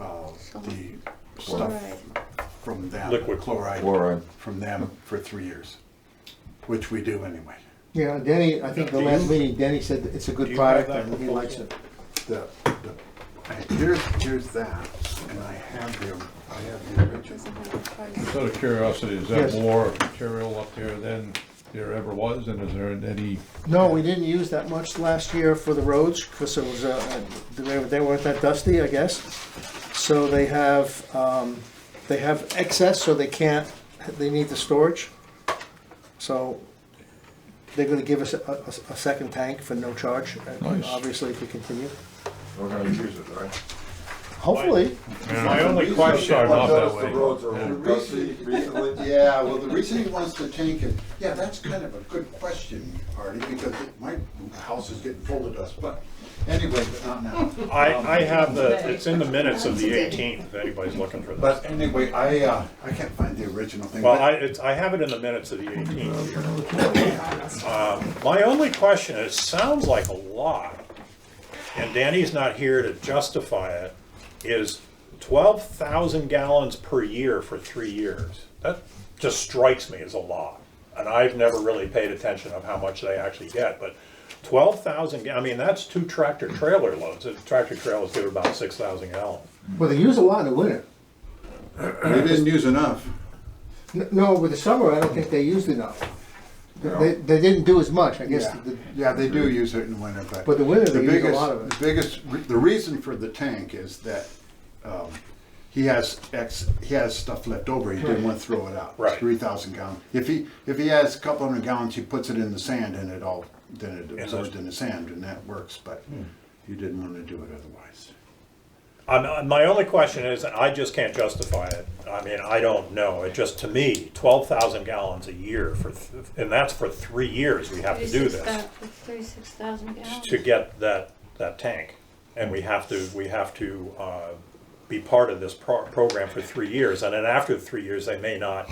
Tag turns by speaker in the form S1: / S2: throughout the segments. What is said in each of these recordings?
S1: Uh, the
S2: Chloride.
S1: stuff from them.
S3: Liquid.
S1: Chloride
S4: uh,
S2: Fluoride.
S1: from them for three years, which we do anyway.
S5: Yeah, Denny, I think the
S3: Do
S5: last
S3: you-
S5: meeting, Denny said that it's a
S3: do
S5: good
S3: you have
S5: product
S3: that
S5: and he
S3: proposal?
S5: likes it.
S1: The, the, and here's, here's that, and I have the, I have the original.
S6: Just out of curiosity, is there
S5: Yes.
S6: more material up there than there ever was, and is there any,
S5: No, we didn't use that much last year for the roads because it was, uh, they they weren't that dusty, I guess. So they have, um, they have excess, so they can't, they need the storage. So they're gonna give us a, a- a second tank for no charge, uh,
S6: Nice.
S5: obviously if we continue.
S4: We're gonna use it, right?
S5: Hopefully,
S6: my only question,
S4: I've
S6: off that
S4: noticed
S6: way.
S4: The roads are
S6: Yeah.
S4: all dusty recently.
S1: Yeah, well, the reason he wants to tank it, yeah, that's kind of a good question, Artie, because it- my house is getting full of dust, but anyway, but not now. Um,
S3: I, I have the, it's in the minutes of the 18th, if anybody's looking for this.
S1: But anyway, I, uh, I can't find the original thing.
S3: Well,
S1: but-
S3: I, it's, I have it in the minutes of the 18th. here. Um, My only question is, sounds like a lot, and Danny's not here to justify it, is 12,000 gallons per year for three years. That just strikes me as a lot. And I've never really paid attention of how much they actually get, but 12,000, ga- I mean, that's two tractor trailer loads. A Tractor trailers give about 6,000 gallons.
S5: well, they use a lot in the winter.
S1: They didn't use enough.
S5: N- No, with the summer, I don't think they used enough. They, they didn't do as much, I guess.
S1: Yeah,
S5: the-
S1: yeah, they do use it in winter, but.
S5: But the winter, they use a
S1: biggest-
S5: lot of it.
S1: The biggest, re- the reason for the tank is that, um, he has ex, he has stuff left over, he didn't want to throw it out.
S3: Right.
S1: Three thousand gallon, if he, if he has a couple hundred gallons, he puts it in the sand and it all, then it absorbs in the sand and that works, but
S3: Hmm.
S1: he didn't want to do it otherwise.
S3: I'm, uh, my only question is, I just can't justify it. I mean, I don't know. It just, to me, twelve thousand gallons a year for, th- and that's for three years we have to do this
S2: Thirty-six thousand gallons.
S3: to get that, that tank. And we have to, we have to, uh, be part of this pro- program for three years. And then after the three years, they may not,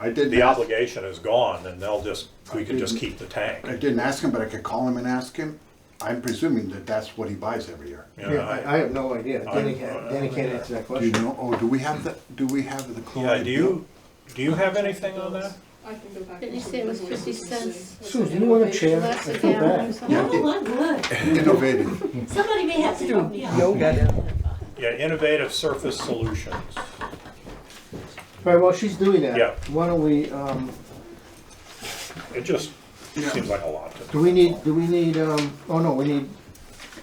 S1: I did,
S3: the
S1: not-
S3: obligation is gone and they'll just, we can just keep the tank.
S1: I didn't ask him, but I could call him and ask him, I'm presuming that that's what he buys every year.
S3: you know,
S5: Yeah, I, I have no idea. Danny can't, Danny can't answer that
S1: Do you
S5: question.
S1: know, oh, do we have the, do we have the
S3: Yeah,
S1: chloride?
S3: do you, do you have anything on that?
S7: I can go back.
S2: Didn't you say it was fifty cents
S5: Susan, you want a chair? I
S2: less a
S5: feel
S2: gallon or
S5: bad.
S2: something?
S1: Yeah,
S8: Oh, I'm
S1: it- Innovative.
S8: good. Somebody may have to help me out.
S3: Yeah, innovative surface solutions.
S5: All right, while she's doing that,
S3: Yeah.
S5: why don't we, um,
S3: It just seems like a lot to me.
S5: do we need, do we need, um, oh no, we need,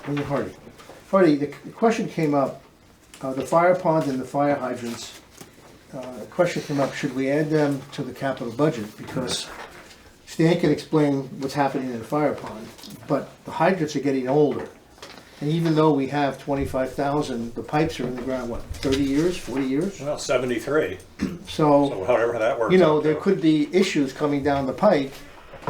S5: we need Hardy. Hardy, the the question came up, uh, the fire ponds and the fire hydrants. Uh, the question came up, should we add them to the capital budget? Because Stan can explain what's happening in the fire pond, but the hydrants are getting older. And even though we have twenty-five thousand, the pipes are in the ground, what, thirty years, forty years?
S3: Well, 73, so
S5: So,
S3: however that works.
S5: you know,
S3: out
S5: there
S3: to.
S5: could be issues coming down the pike,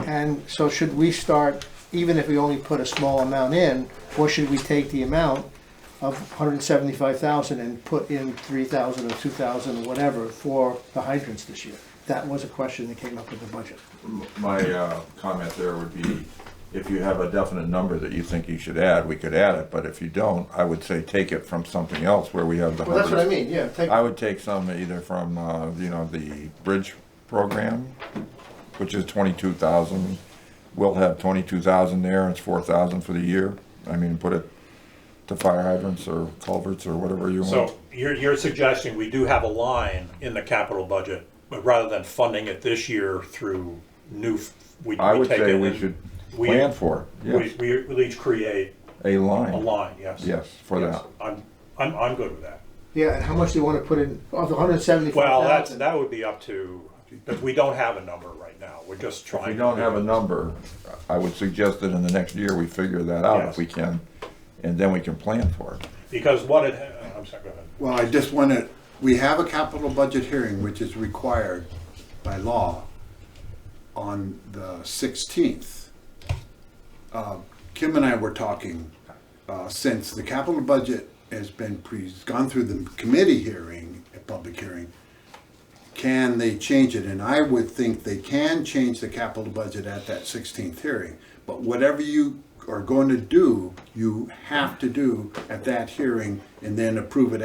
S5: and so should we start, even if we only put a small amount in, or should we take the amount of hundred and seventy-five thousand and put in three thousand or two thousand or whatever for the hydrants this year? That was a question that came up with the budget.
S4: My uh, comment there would be, if you have a definite number that you think you should add, we could add it, but if you don't, I would say take it from something else where we have the.
S5: Well, that's what I
S4: hundreds.
S5: mean, yeah, take,
S4: I would take some either from, uh, you know, the bridge program, which is twenty-two thousand. We'll have twenty-two thousand there, it's four thousand for the year. I mean, put it to fire hydrants or culverts or whatever you want.
S3: So you're, you're suggesting we do have a line in the capital budget, but rather than funding it this year through new, f- we
S4: I
S3: we
S4: would
S3: take
S4: say
S3: it
S4: we
S3: and
S4: should
S3: we-
S4: plan for it,
S3: We,
S4: yes,
S3: we we each create
S4: a
S3: a
S4: line,
S3: line, yes.
S4: yes, for
S3: Yes.
S4: that.
S3: I'm, I'm, I'm good with that.
S5: yeah, and how much do you wanna put in, of the hundred and seventy-five
S3: Well,
S5: thousand?
S3: that's, that would be up to, because we don't have a number right now, we're just trying.
S4: If we don't
S3: to-
S4: have a number, I would suggest that in the next year, we figure that out
S3: Yes.
S4: if we can, and then we can plan for it.
S3: Because what it, I'm sorry, go ahead.
S1: Well, I just want to, we have a capital budget hearing, which is required by law on the 16th. Uh, Kim and I were talking, uh, since the capital budget has been pre, gone through the committee hearing, a public hearing, can they change it? And I would think they can change the capital budget at that 16th hearing. But whatever you are going to do, you have to do at that hearing and then approve it